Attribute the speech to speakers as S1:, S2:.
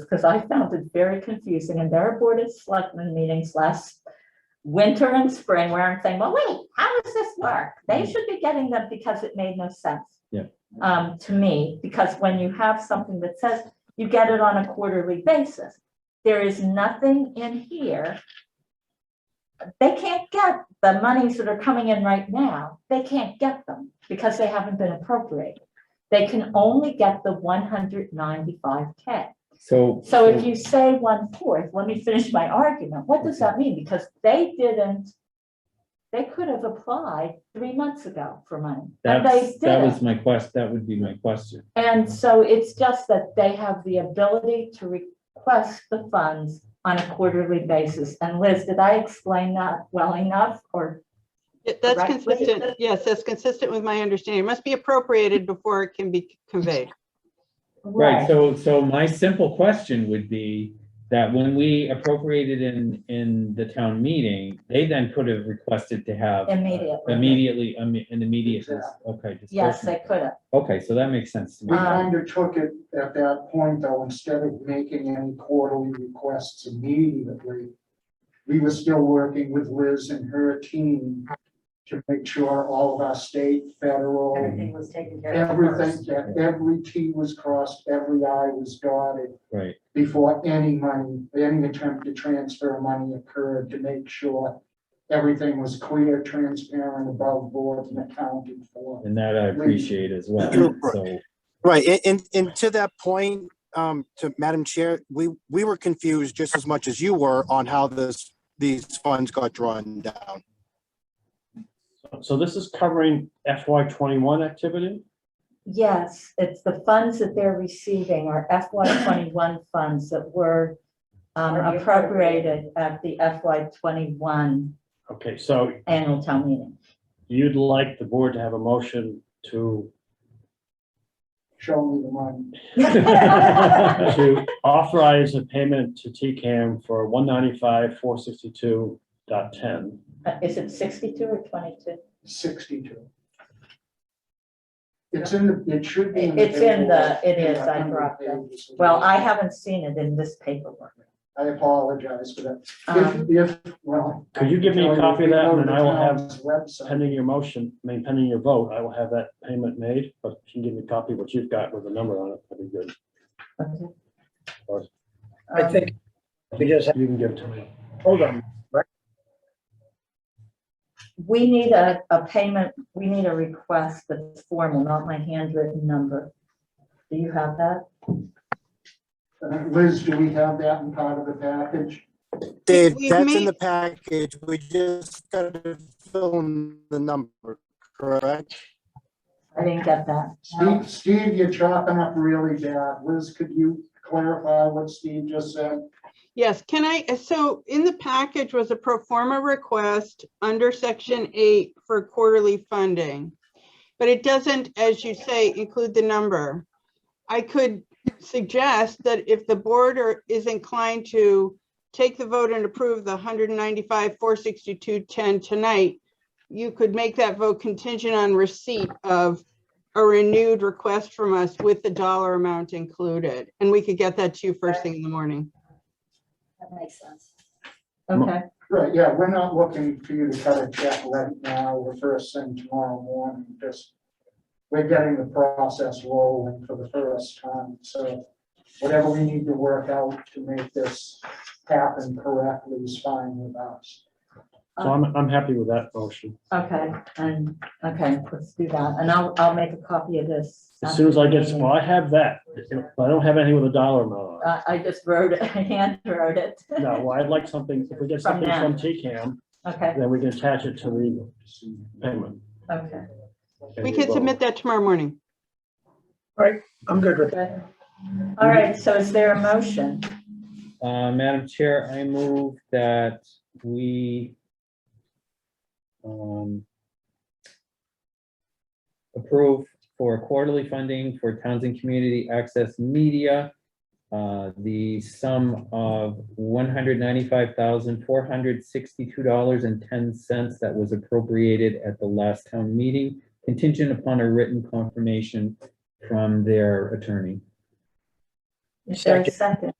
S1: because I found it very confusing in their board of selectmen meetings last winter and spring where I'm saying, well, wait, how does this work? They should be getting them because it made no sense.
S2: Yeah.
S1: Um, to me, because when you have something that says you get it on a quarterly basis, there is nothing in here. They can't get the monies that are coming in right now. They can't get them because they haven't been appropriated. They can only get the one hundred ninety-five K.
S2: So.
S1: So if you say one fourth, let me finish my argument. What does that mean? Because they didn't, they could have applied three months ago for money. And they
S2: That's, that
S1: didn't.
S2: was my quest, that would be my question.
S1: And so it's just that they have the ability to request the funds on a quarterly basis. And Liz, did I explain that well enough or?
S3: Yeah, That's
S1: correctly?
S3: consistent, yes, that's consistent with my understanding. It must be appropriated before it can be conveyed.
S2: Right, so, so my simple question would be that when we appropriated in, in the town meeting, they then could have requested to have.
S1: Immediately.
S2: Immediately, um, an immediate, dis- okay.
S1: Yes, they
S2: disbursement.
S1: could have.
S2: Okay, so that makes sense to me.
S4: We
S1: Um,
S4: undertook it at that point, though, instead of making any quarterly requests immediately. We were still working with Liz and her team to make sure all of our state, federal,
S5: Everything was taken care of
S4: everything,
S5: first.
S4: that every T was crossed, every I was dotted
S2: Right,
S4: before any money, any attempt to transfer money occurred to make sure everything was clear, transparent, above board and accounted for.
S2: and that I appreciate as well, so,
S6: Right, and, and, and to that point, um, to Madam Chair, we, we were confused just as much as you were on how this, these funds got drawn down.
S7: So this is covering FY twenty-one activity?
S1: Yes, it's the funds that they're receiving are FY twenty-one funds that were um,
S5: Already
S1: appropriated at the FY twenty-one
S7: Okay, so
S1: annual town meeting.
S7: you'd like the board to have a motion to,
S4: Show me the money.
S7: to authorize a payment to TCAM for one ninety-five, four sixty-two dot ten.
S1: Uh, Is it sixty-two or twenty-two?
S4: sixty-two. It's in the, it should be.
S1: It's in the-
S4: paperwork,
S1: it
S4: in
S1: is,
S4: the
S1: I
S4: hundred
S1: dropped it.
S4: pages.
S1: Well, I haven't seen it in this paperwork.
S4: I apologize for that.
S1: Um,
S4: If, if, well.
S7: Could you give me a copy of that, and then I will have
S4: Town's Website,
S7: Pending your motion, I mean, pending your vote, I will have that payment made, but if you can give me a copy of what you've got with the number on it, that'd be good.
S1: Um, okay.
S7: Or-
S8: I
S1: Um,
S8: think we just,
S7: You can give it to me.
S8: hold on,
S1: We need a, a payment, we need a request that's formal, not my handwritten number. Do you have that?
S4: Uh, Liz, do we have that in part of the package?
S6: Dave,
S3: We've
S6: that's in
S3: made-
S6: the package, we just gotta fill in the number, correct?
S1: I didn't get that.
S4: Steve, Steve, you're chopping up really bad. Liz, could you clarify what Steve just said?
S3: Yes, can I, so in the package was a pro forma request under section eight for quarterly funding. But it doesn't, as you say, include the number. I could suggest that if the board are- is inclined to take the vote and approve the 195, 462, 10 tonight, you could make that vote contingent on receipt of a renewed request from us with the dollar amount included. And we could get that to you first thing in the morning.
S5: That makes sense.
S1: Okay,
S4: Right, yeah, we're not looking for you to cut a check right now or first thing tomorrow morning, just, we're getting the process rolling for the first time, so whatever we need to work out to make this happen correctly is fine with us.
S7: So I'm, I'm happy with that motion.
S1: okay, and, okay, let's do that. And I'll, I'll make a copy of this. Uh,
S7: As soon as I get,
S1: after the
S7: well, I have that, but I don't have anything with a dollar amount on it.
S1: meeting. I, I just wrote it, I hand wrote it.
S7: No, well, I'd like something, if we get
S1: Uh, From
S7: something
S1: them.
S7: from TCAM,
S1: Okay,
S7: then we can attach it to the payment.
S1: okay,
S7: and
S3: We
S7: the
S3: could
S7: vote.
S3: submit that tomorrow morning.
S8: I'm good with
S1: good. All right, so is there a motion?
S2: uh, Madam Chair, I move that we um, approve for quarterly funding for Townsend Community Access Media, uh, the sum of one hundred ninety-five thousand, four hundred sixty-two dollars and ten cents that was appropriated at the last town meeting, contingent upon a written confirmation from their attorney.
S1: Is there a second?